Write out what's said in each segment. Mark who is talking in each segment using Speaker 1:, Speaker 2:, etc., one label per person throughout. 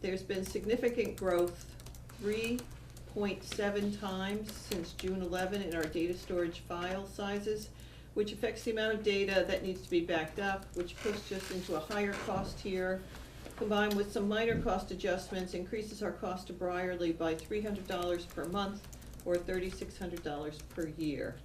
Speaker 1: There's been significant growth, three point seven times since June eleven in our data storage file sizes, which affects the amount of data that needs to be backed up, which puts us into a higher cost tier. Combined with some minor cost adjustments, increases our cost to Briarly by three hundred dollars per month or thirty-six hundred dollars per year.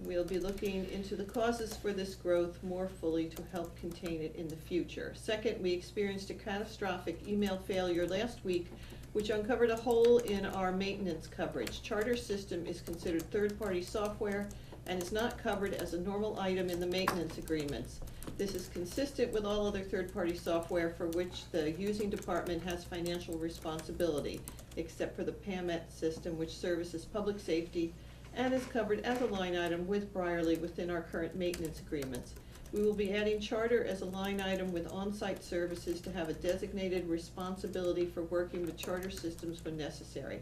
Speaker 1: We'll be looking into the causes for this growth more fully to help contain it in the future. Second, we experienced a catastrophic email failure last week, which uncovered a hole in our maintenance coverage. Charter system is considered third-party software and is not covered as a normal item in the maintenance agreements. This is consistent with all other third-party software for which the using department has financial responsibility, except for the PAMET E system, which services public safety and is covered as a line item with Briarly within our current maintenance agreements. We will be adding charter as a line item with on-site services to have a designated responsibility for working with charter systems when necessary.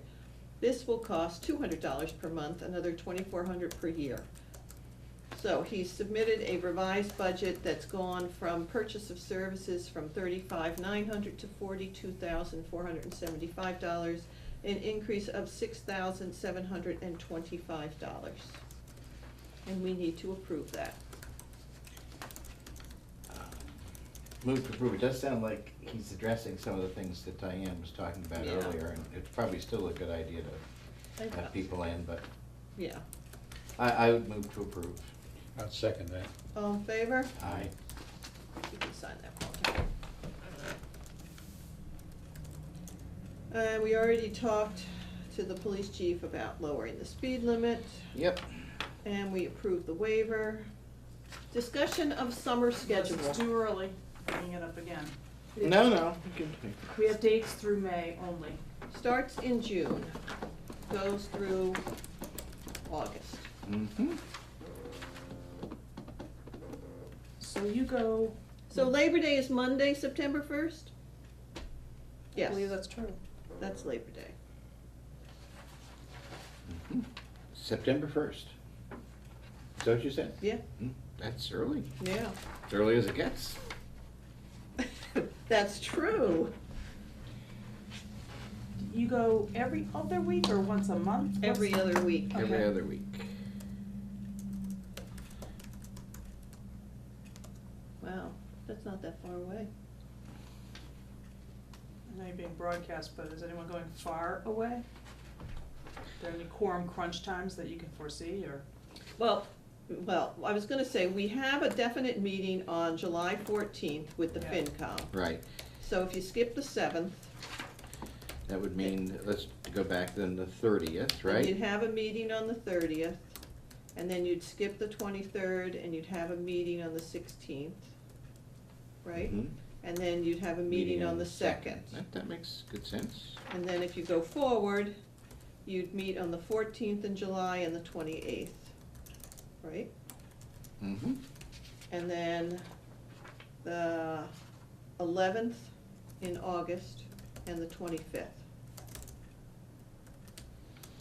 Speaker 1: This will cost two hundred dollars per month, another twenty-four hundred dollars per year. So he submitted a revised budget that's gone from purchase of services from thirty-five nine hundred to forty-two thousand four hundred and seventy-five dollars, an increase of six thousand seven hundred and twenty-five dollars. And we need to approve that.
Speaker 2: Move to approve, it does sound like he's addressing some of the things that Diane was talking about
Speaker 1: Yeah.
Speaker 2: earlier, and it's probably still a good idea to have people in, but
Speaker 1: Yeah,
Speaker 2: I, I would move to approve.
Speaker 3: I'll second that.
Speaker 1: all in favor?
Speaker 2: Aye.
Speaker 1: You can sign that, Walter. Uh, we already talked to the police chief about lowering the speed limit,
Speaker 2: Yep,
Speaker 1: and we approved the waiver. Discussion of summer
Speaker 4: Yes,
Speaker 1: schedule.
Speaker 4: It's too early, bringing it up again.
Speaker 2: no, no.
Speaker 4: We have dates through May only.
Speaker 1: Starts in June, goes through August.
Speaker 2: Mm-hmm,
Speaker 4: So you go,
Speaker 1: So Labor Day is Monday, September first?
Speaker 4: I
Speaker 1: Yes,
Speaker 4: believe that's true.
Speaker 1: that's Labor Day.
Speaker 2: Mm-hmm. September first. Is that what you said?
Speaker 1: Yeah,
Speaker 2: Mm, That's early,
Speaker 1: yeah.
Speaker 2: as early as it gets.
Speaker 1: That's true.
Speaker 4: You go every other week or once a month? What's-
Speaker 1: Every other week.
Speaker 2: Every
Speaker 4: Okay.
Speaker 2: other week.
Speaker 1: Wow, that's not that far away.
Speaker 4: I know you're being broadcast, but is anyone going far away? Are there any quorum crunch times that you can foresee or?
Speaker 1: Well, well, I was gonna say, we have a definite meeting on July fourteenth with the
Speaker 4: Yeah.
Speaker 1: FinCom.
Speaker 2: Right,
Speaker 1: So if you skip the seventh.
Speaker 2: that would mean, let's go back then the thirtieth,
Speaker 1: You'd
Speaker 2: right?
Speaker 1: have a meeting on the thirtieth, and then you'd skip the twenty-third, and you'd have a meeting on the sixteenth, right?
Speaker 2: Mhm.
Speaker 1: And then you'd have a Mm-hmm. meeting on the second.
Speaker 2: That, that makes good sense.
Speaker 1: And then if you go forward, you'd meet on the fourteenth in July and the twenty-eighth, right?
Speaker 2: Mm-hmm.
Speaker 1: And then the eleventh in August and the twenty-fifth.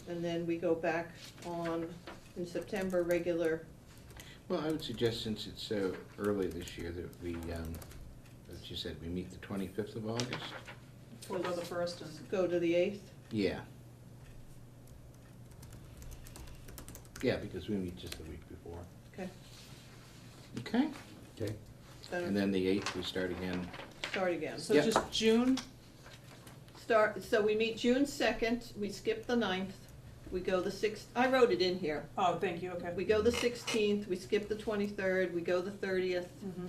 Speaker 1: And then we go back on, in September, regular,
Speaker 2: Well, I would suggest since it's so early this year that we, um, as you said, we meet the twenty-fifth of August?
Speaker 4: Or go the first and,
Speaker 1: go to the eighth.
Speaker 2: Yeah. Yeah, because we meet just the week before.
Speaker 1: Okay.
Speaker 2: Okay,
Speaker 3: Okay.
Speaker 2: and then the eighth, we start again.
Speaker 1: Start again.
Speaker 4: so
Speaker 2: Yeah.
Speaker 4: just June?
Speaker 1: Start, so we meet June second, we skip the ninth, we go the sixth, I wrote it in here.
Speaker 4: Oh, thank you, okay.
Speaker 1: We go the sixteenth, we skip the twenty-third, we go the thirtieth.
Speaker 4: Mhm.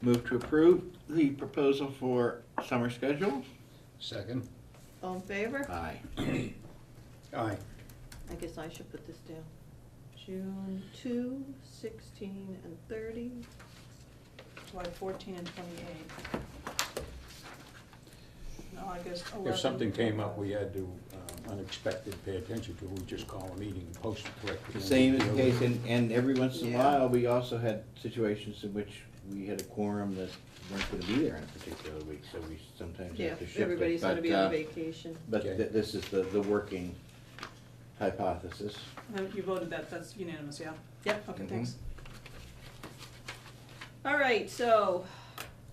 Speaker 2: Move to approve the proposal for summer schedule?
Speaker 3: Second?
Speaker 1: All in favor?
Speaker 2: Aye.
Speaker 3: Aye.
Speaker 1: I guess I should put this down. June two, sixteen, and thirty.
Speaker 4: July fourteen and twenty-eight. And August eleven.
Speaker 3: If something came up we had to um, unexpected pay attention to, we just call a meeting and post it correctly.
Speaker 2: The same is the case, and, and every once in a
Speaker 1: Yeah.
Speaker 2: while, we also had situations in which we had a quorum that weren't gonna be there in a particular week, so we sometimes
Speaker 1: Yeah,
Speaker 2: have to shift it.
Speaker 1: everybody's gonna
Speaker 2: but,
Speaker 1: be on
Speaker 2: uh,
Speaker 1: vacation.
Speaker 2: But
Speaker 3: Okay.
Speaker 2: th- this is the, the working hypothesis.
Speaker 4: No, Uh, You voted that, that's unanimous, yeah?
Speaker 1: Yep.
Speaker 4: Okay,
Speaker 2: Mhm.
Speaker 4: thanks.
Speaker 1: All right, so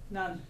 Speaker 4: None.